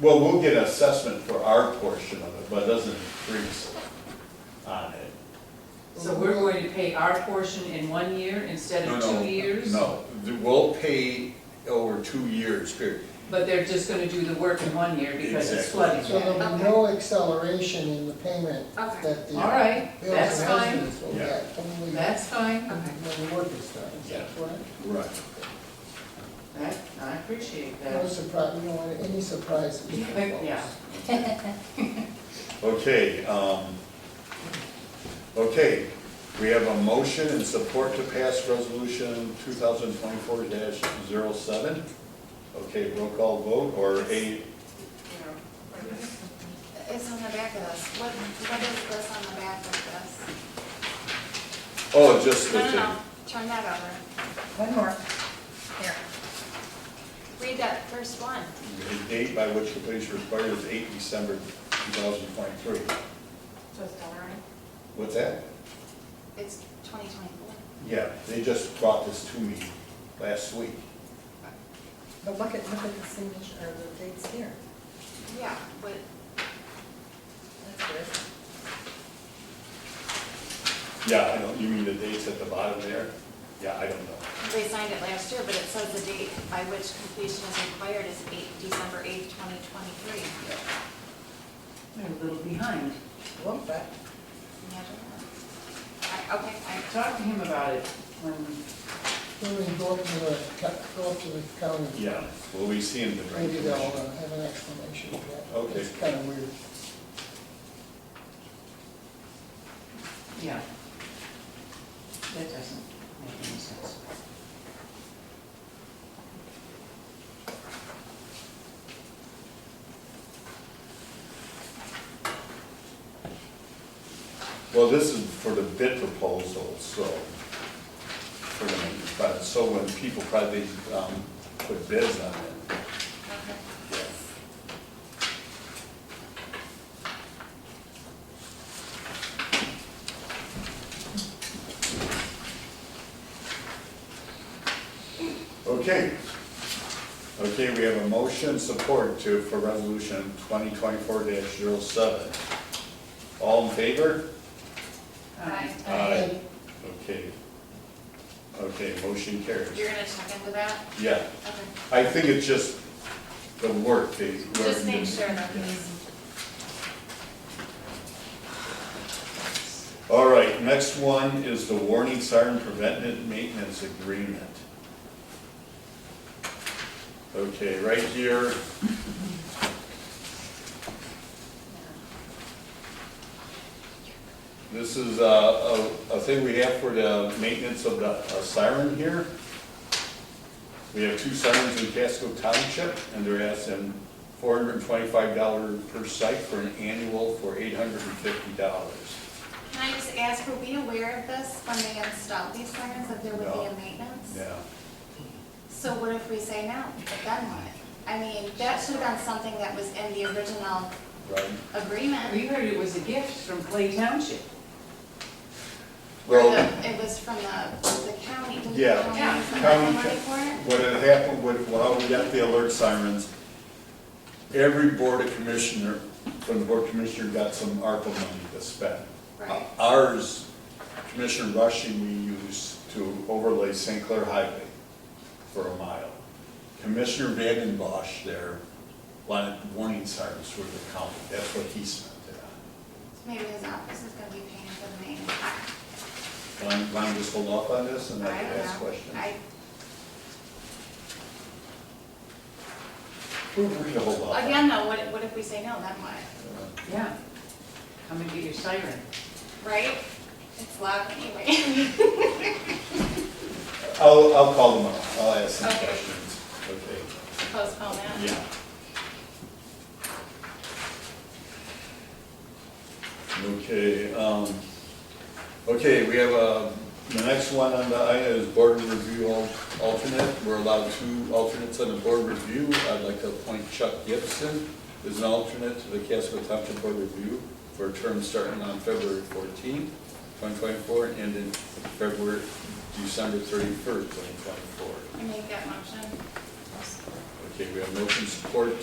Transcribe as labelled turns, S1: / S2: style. S1: Well, we'll get assessment for our portion of it, but it doesn't increase on it.
S2: So we're going to pay our portion in one year instead
S1: No,
S2: of
S1: no,
S2: two years?
S1: No, The- we'll pay over two years, period.
S2: But they're just gonna do the work in one year because it's
S1: Exactly.
S2: flooding.
S3: So there'll be no acceleration in the payment
S4: Okay.
S3: that the.
S2: All right,
S3: bills
S2: that's
S3: and
S2: fine,
S3: houses will
S1: Yeah.
S3: get when we-
S2: that's fine,
S4: Okay.
S3: When the work is done, is that
S1: Yeah.
S3: correct?
S1: Right.
S2: That- I appreciate
S3: No
S2: that.
S3: surprise, we don't want any surprises.
S2: Yeah.
S1: Okay, um, okay, we have a motion and support to pass resolution two thousand twenty-four 7 Okay, roll call vote, or a,
S4: It's on the back of this, what, what is this on the back of
S1: oh, just
S4: this?
S1: the
S4: No, no, no,
S1: thing.
S4: turn that over,
S5: One more. Here.
S4: read that first one.
S1: The date by which the police required is eight December two thousand twenty-three.
S4: So it's done already?
S1: What's that?
S4: It's twenty twenty-four.
S1: Yeah, they just brought this to me last week.
S5: But look at, look at the signature, or the dates here.
S4: Yeah, but
S5: That's good.
S1: Yeah, I don't, you mean the dates at the bottom there? Yeah, I don't know.
S4: they signed it last year, but it says the date by which completion is required is eight, December eighth, twenty twenty-three.
S2: They're a little behind.
S5: A little bit.
S4: Imagine that. I, okay, I,
S2: Talk to him about it when,
S3: Then we go up to the, co- go up to the uh, county.
S1: Yeah, well, we see in the
S3: Maybe they'll
S1: drainage.
S3: uh, have an explanation for that.
S1: Okay.
S3: It's kind of weird.
S2: yeah. That doesn't make any sense.
S3: uh,
S1: Well, this is for the bid proposal, so, for the, but, so when people probably, um, put bids on it.
S4: okay.
S1: Okay. Okay, we have a motion support to, for resolution twenty twenty-four 7 All in favor?
S2: Aye.
S1: Aye. Okay. Okay, motion carries.
S4: You're gonna check into that?
S1: Yeah,
S4: Okay.
S1: I think it's just the work they.
S4: Just make sure that he's
S1: All right, next one is the warning siren preventive maintenance agreement. Okay, right here, this is a, a, a thing we have for the maintenance of the a siren here. We have two sirens in Casco Township, and they're asking four hundred and twenty-five dollar per site for an annual for eight hundred and fifty dollars.
S4: Can I just ask, were we aware of this when they installed these sirens, that there would be
S1: No.
S4: a maintenance?
S1: Yeah,
S4: So what if we say no, then what? I mean, that should have been something that was in the original
S1: right?
S4: agreement.
S2: We heard it was a gift from Clay Township.
S4: or
S1: Well.
S4: the- It was from the, the county. Didn't the
S1: Yeah.
S2: Yeah.
S4: county
S1: County
S4: send money for it?
S1: What had happened with, well, we got the alert sirens, every board of commissioner, from the board of commissioner, got some ARPA money to spend.
S4: Right.
S1: Ours, Commissioner Rushing, we used to overlay St. Clair Highway for a mile. Commissioner Vanden Bosch there wanted warning sirens for the county, that's what he spent it
S4: Maybe his office is gonna be paying for the maintenance. I-
S1: on. Want, want to just hold off on this and
S4: I
S1: then
S4: don't
S1: ask
S4: know.
S1: questions?
S4: I,
S1: We're free to hold off. on
S4: again, though, what, if- what if we say no, then what?
S1: it.
S2: Yeah. Come and get your siren.
S4: Right? It's loud anyway.
S1: I'll, I'll call them up, I'll ask some
S4: Okay.
S1: questions. Okay.
S4: Postpone that.
S1: Yeah. Okay, um, okay, we have, uh, the next one on the item is board review al- alternate. We're allowed two alternates on the board review. I'd like to appoint Chuck Gibson as an alternate to the Casco Township Board Review for a term starting on February fourteenth, twenty twenty-four, and ending February, December thirty-first, twenty twenty-four.
S4: I make that motion.
S1: Okay, we have motion support